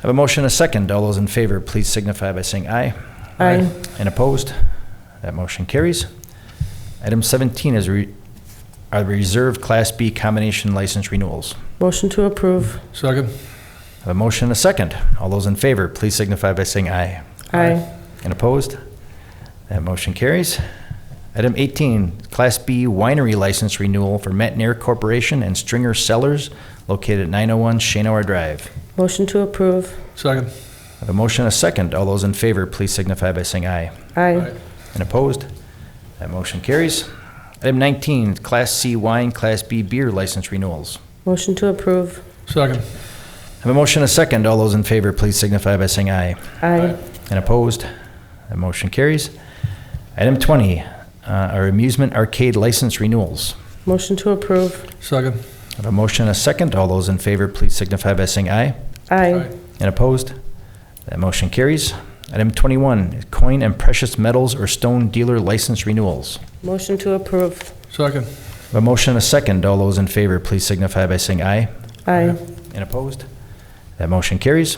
I have a motion, and a second. All those in favor, please signify by saying aye. Aye. And opposed? That motion carries. Item 17 is re- are the reserved Class B combination license renewals. Motion to approve. I Second. have a motion, and a second. All those in favor, please signify by saying aye. Aye. And opposed? That motion carries. Item 18, Class B winery license renewal for Metnair Corporation and Stringer Cellars located at 901 Shanaway Drive. Motion to approve. Second. I have a motion, and a second. All those in favor, please signify by saying aye. Aye. And opposed? That motion carries. Item 19, Class C wine, Class B beer license renewals. Motion to approve. Second. I have a motion, and a second. All those in favor, please signify by saying aye. Aye. And opposed? That motion carries. Item 20, uh, our amusement arcade license renewals. Motion to approve. Second. I have a motion, and a second. All those in favor, please signify by saying aye. Aye. And opposed? That motion carries. Item 21, coin and precious metals or stone dealer license renewals. Motion to approve. Second. I have A motion, and a second. All those in favor, please signify by saying aye. Aye. And opposed? That motion carries.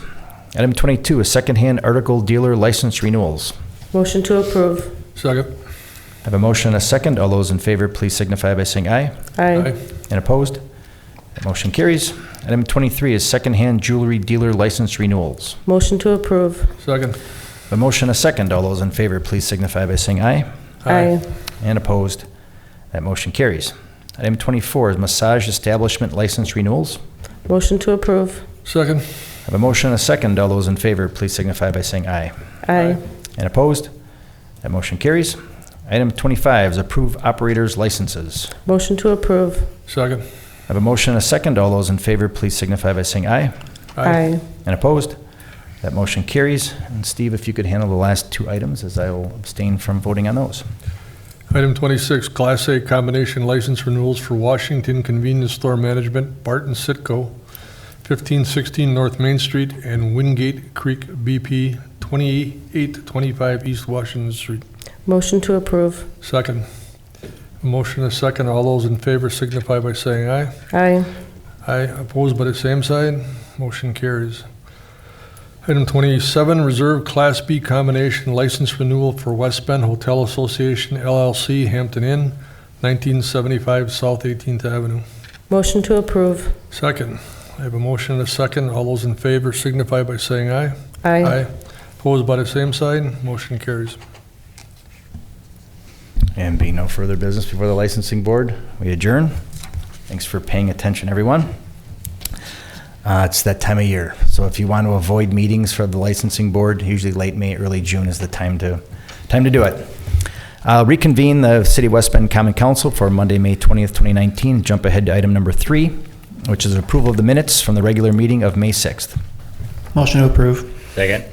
Item 22 is secondhand article dealer license renewals. Motion to approve. Second. I have a motion and a second. All those in favor, please signify by saying aye. Aye. And opposed? That motion carries. Item 23 is secondhand jewelry dealer license renewals. Motion to approve. Second. I have A motion and a second. All those in favor, please signify by saying aye. Aye. And opposed? That motion carries. Item 24 is massage establishment license renewals. Motion to approve. Second. I have a motion and a second. All those in favor, please signify by saying aye. Aye. And opposed? That motion carries. Item 25 is approve operators licenses. Motion to approve. Second. I have a motion and a second. All those in favor, please signify by saying aye. Aye. And opposed? That motion carries. And Steve, if you could handle the last two items, as I will abstain from voting on those. Item 26, Class A combination license renewals for Washington Convenience Store Management, Barton Sitco, 1516 North Main Street, and Wingate Creek BP, 2825 East Washington Street. Motion to approve. Second. Motion is second. All those in favor signify by saying aye. Aye. Aye, opposed by the same side. Motion carries. Item 27, Reserve Class B Combination License Renewal for West Bend Hotel Association LLC Hampton Inn, 1975 South 18th Avenue. Motion to approve. Second, I have a motion and a second. All those in favor signify by saying aye. Aye. Opposed by the same side. Motion carries. And being no further business before the licensing board, we adjourn. Thanks for paying attention, everyone. Uh, It's that time of year, so if you want to avoid meetings for the licensing board, usually late May, early June is the time to, time to do it. Uh, Reconvene the City of West Bend Common Council for Monday, May 20th, 2019. Jump ahead to item number three, which is approval of the minutes from the regular meeting of May 6th. Motion to approve. Second.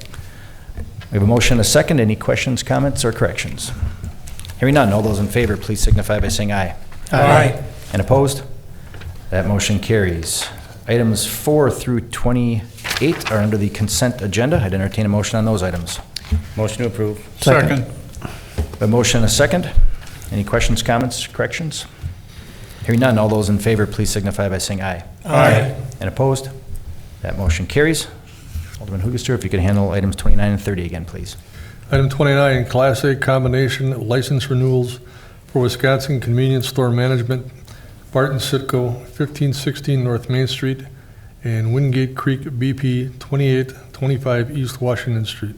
We have a motion, and a second. Any questions, comments, or corrections? Hearing none, all those in favor, please signify by saying aye. Aye. And opposed? That motion carries. Items four through 28 are under the consent agenda. I'd entertain a motion on those items. Motion to approve. Second. A motion, and a second. Any questions, comments, corrections? Hearing none, all those in favor, please signify by saying aye. Aye. And opposed? That motion carries. Alderman Hoogaster, if you could handle items 29 and 30 again, please. Item 29, Class A Combination License Renewals for Wisconsin Convenience Store Management, Barton Sitco, 1516 North Main Street, and Wingate Creek BP, 2825 East Washington Street.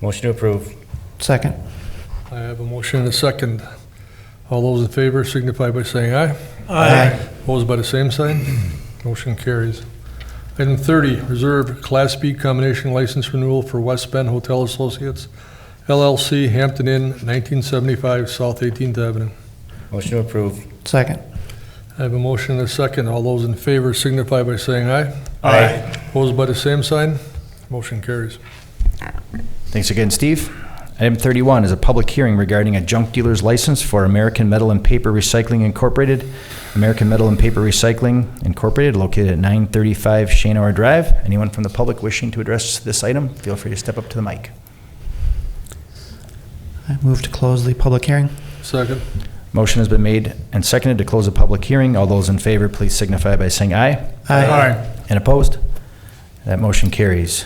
Motion to approve. Second. I have a motion and a second. All those in favor signify by saying aye. Aye. Opposed by the same sign? Motion carries. Item 30, Reserve Class B Combination License Renewal for West Bend Hotel Associates LLC, Hampton Inn, 1975 South 18th Avenue. Motion to approve. Second. I have a motion and a second. All those in favor signify by saying aye. Aye. Opposed by the same sign? Motion carries. Thanks again, Steve. Item 31 is a public hearing regarding a junk dealer's license for American Metal and Paper Recycling Incorporated. American Metal and Paper Recycling Incorporated located at 935 Shanor Drive. Anyone from the public wishing to address this item, feel free to step up to the mic. I move to close the public hearing. Second. Motion has been made and seconded to close the public hearing. All those in favor, please signify by saying aye. And opposed? That motion carries.